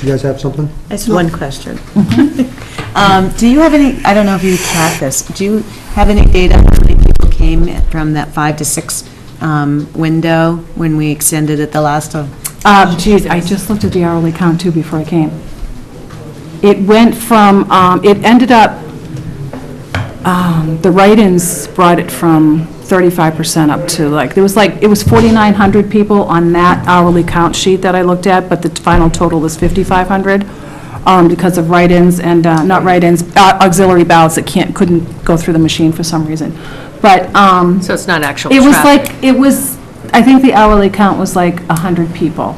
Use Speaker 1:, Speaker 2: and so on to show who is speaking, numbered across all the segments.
Speaker 1: You guys have something?
Speaker 2: That's one question.
Speaker 3: Um, Do you have any, I don't know if you track this, do you have any data on how many people came from that five to six um, window when we extended it the last of?
Speaker 4: Um, Geez, I just looked at the hourly count too before I came. It went from, um, it ended up, um, the write-ins brought it from 35% up to like, there was like, it was 4,900 people on that hourly count sheet that I looked at, but the final total was 5,500 um, because of write-ins and, uh, not write-ins, uh, auxiliary ballots that can't, couldn't go through the machine for some reason. But, um,
Speaker 5: So it's not actual
Speaker 4: it was
Speaker 5: traffic.
Speaker 4: like, it was, I think the hourly count was like 100 people.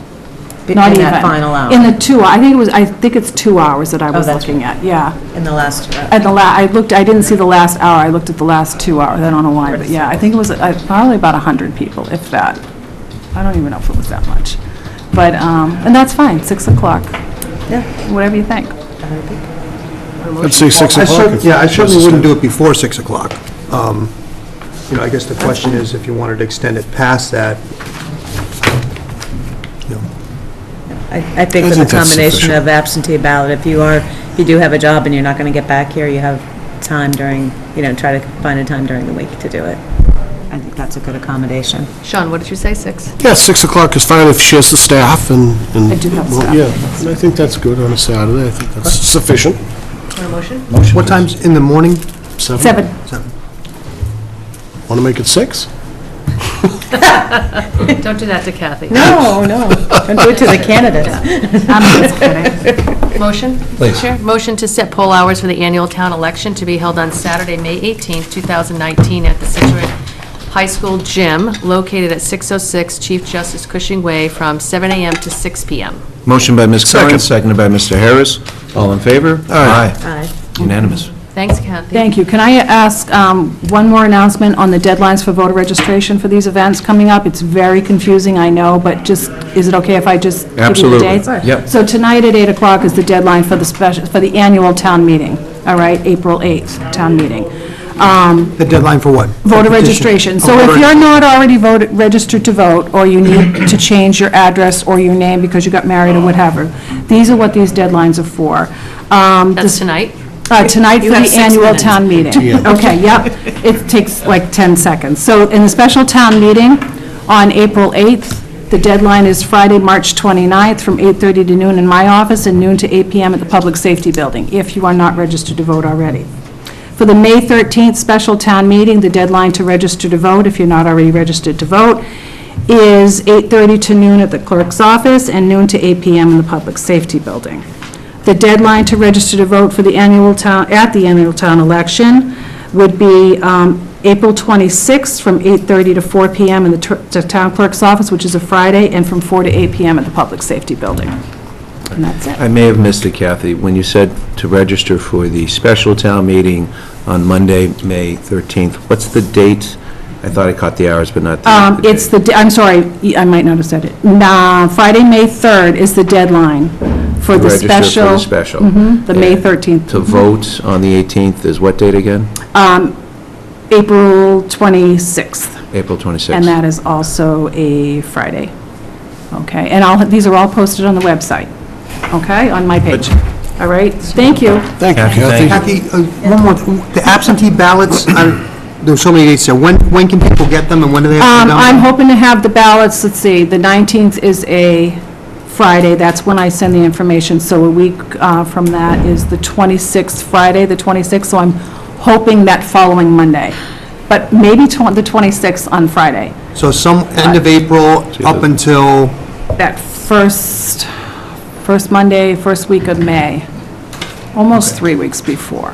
Speaker 3: In
Speaker 4: Not
Speaker 3: that
Speaker 4: even.
Speaker 3: final hour.
Speaker 4: In the Uh, two, I think it was, I think it's two hours that I was
Speaker 3: that's
Speaker 4: looking at, yeah.
Speaker 3: In the last, uh,
Speaker 4: At the la, I looked, I didn't see the last hour, I looked at the last two hours, I don't know why, but yeah, I think it was uh, probably about 100 people, if that. I don't even know if it was that much. But, um, and that's fine, 6 o'clock. Yeah. Whatever you think.
Speaker 6: I'd say 6
Speaker 1: I cer-
Speaker 6: o'clock.
Speaker 1: Yeah, I certainly wouldn't do it before 6 o'clock. Um, You know, I guess the question is, if you wanted to extend it past that, you know,
Speaker 3: I I think
Speaker 6: I
Speaker 3: with a
Speaker 6: think that's
Speaker 3: combination of
Speaker 6: sufficient.
Speaker 3: absentee ballot, if you are, if you do have a job and you're not going to get back here, you have time during, you know, try to find a time during the week to do it. I think that's a good accommodation.
Speaker 5: Sean, what did you say, 6?
Speaker 6: Yeah, 6 o'clock is fine if she has the staff and... and-
Speaker 4: I do have
Speaker 6: well,
Speaker 4: staff.
Speaker 6: Yeah, and I think that's good on a Saturday, I think that's sufficient.
Speaker 5: Want a motion?
Speaker 1: what time's in the morning?
Speaker 4: Seven.
Speaker 6: Want to make it 6?
Speaker 5: Don't do that to Kathy.
Speaker 3: No, no, don't do it to the candidates.
Speaker 4: I'm just kidding.
Speaker 5: Motion? Please. Motion to set poll hours for the annual town election to be held on Saturday, May 18th, 2019, at the Situate High School Gym, located at 606 Chief Justice Cushing Way, from 7 a.m. to 6 p.m.
Speaker 7: Motion by Ms.
Speaker 6: Second.
Speaker 7: Curran, seconded by Mr. Harris. All in favor?
Speaker 6: Aye.
Speaker 3: Aye.
Speaker 7: Unanimous.
Speaker 5: Thanks, Kathy.
Speaker 4: Thank you. Can I ask um, one more announcement on the deadlines for voter registration for these events coming up? It's very confusing, I know, but just, is it okay if I just give you the
Speaker 7: Absolutely.
Speaker 4: dates?
Speaker 7: Sure. Yep.
Speaker 4: So tonight at 8 o'clock is the deadline for the special, for the annual town meeting, all right, April 8th, town meeting. Um,
Speaker 1: The deadline for what?
Speaker 4: Voter
Speaker 1: Petition.
Speaker 4: registration. So if you're not already voted, registered to vote, or you need to change your address or your name because you got married or whatever, these are what these deadlines are for. Um,
Speaker 5: That's
Speaker 4: this-
Speaker 5: tonight.
Speaker 4: uh, Tonight for
Speaker 5: You have
Speaker 4: the
Speaker 5: six
Speaker 4: annual
Speaker 5: minutes.
Speaker 4: town meeting. Okay, yep. It takes like 10 seconds. So in the special town meeting on April 8th, the deadline is Friday, March 29th, from 8:30 to noon in my office and noon to 8 PM at the Public Safety Building, if you are not registered to vote already. For the May 13th special town meeting, the deadline to register to vote, if you're not already registered to vote, is 8:30 to noon at the clerk's office and noon to 8 PM in the Public Safety Building. The deadline to register to vote for the annual town, at the annual town election would be um, April 26th from 8:30 to 4 PM in the tr- the town clerk's office, which is a Friday, and from 4 to 8 PM at the Public Safety Building. And that's it.
Speaker 7: I may have missed it, Kathy, when you said to register for the special town meeting on Monday, May 13th. What's the date? I thought I caught the hours, but not the
Speaker 4: Um,
Speaker 7: the date.
Speaker 4: It's the, de- I'm sorry, I might not have said it. Nah, Friday, May 3rd is the deadline for
Speaker 7: To
Speaker 4: the
Speaker 7: register for
Speaker 4: special.
Speaker 7: the special.
Speaker 4: Mhm, the May 13th.
Speaker 7: To vote on the 18th is what date again?
Speaker 4: April 26th.
Speaker 7: April 26th.
Speaker 4: And that is also a Friday. Okay, and all, these are all posted on the website, okay, on my page. All right, thank you.
Speaker 6: Thank you,
Speaker 7: Kathy, thank
Speaker 6: Kathy.
Speaker 1: Kathy, uh, one more, the absentee ballots, I- there were so many dates there. When, when can people get them, and when do they have to
Speaker 4: Um,
Speaker 1: be done?
Speaker 4: I'm hoping to have the ballots, let's see, the 19th is a Friday, that's when I send the information, so a week uh, from that is the 26th, Friday, the 26th, so I'm hoping that following Monday, but maybe tw- the 26th on Friday,
Speaker 1: So some, end of April, up until,
Speaker 4: that first, first Monday, first week of May, almost three weeks before.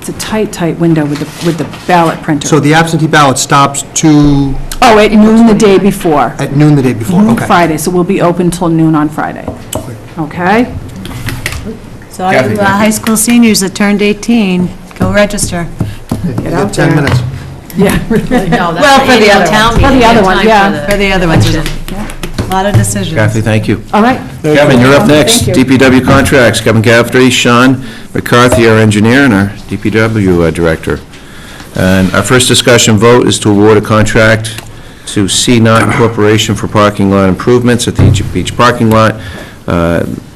Speaker 4: It's a tight, tight window with the, with the ballot printer.
Speaker 1: so the absentee ballot stops to,
Speaker 4: Oh, at noon the day before.
Speaker 1: at noon the day before,
Speaker 4: Mhm,
Speaker 1: okay.
Speaker 4: Friday, so we'll be open till noon on Friday. Okay?
Speaker 3: So all you uh, high school seniors that turned 18, go register.
Speaker 1: You got 10 minutes.
Speaker 5: Well,
Speaker 3: for the other ones.
Speaker 4: For the other
Speaker 5: Town meeting. Time
Speaker 4: one,
Speaker 5: for
Speaker 4: yeah,
Speaker 5: the-
Speaker 3: For the other ones, there's a lot of decisions.
Speaker 7: Kathy, thank you.
Speaker 4: All right.
Speaker 7: Kevin, you're up next.
Speaker 4: Thank you.
Speaker 7: DPW contracts, Kevin Cafferty, Sean McCarthy, our engineer, and our DPW uh, director. And our first discussion vote is to award a contract to C-Not Corporation for parking lot improvements at the Egypt Beach parking lot. Uh,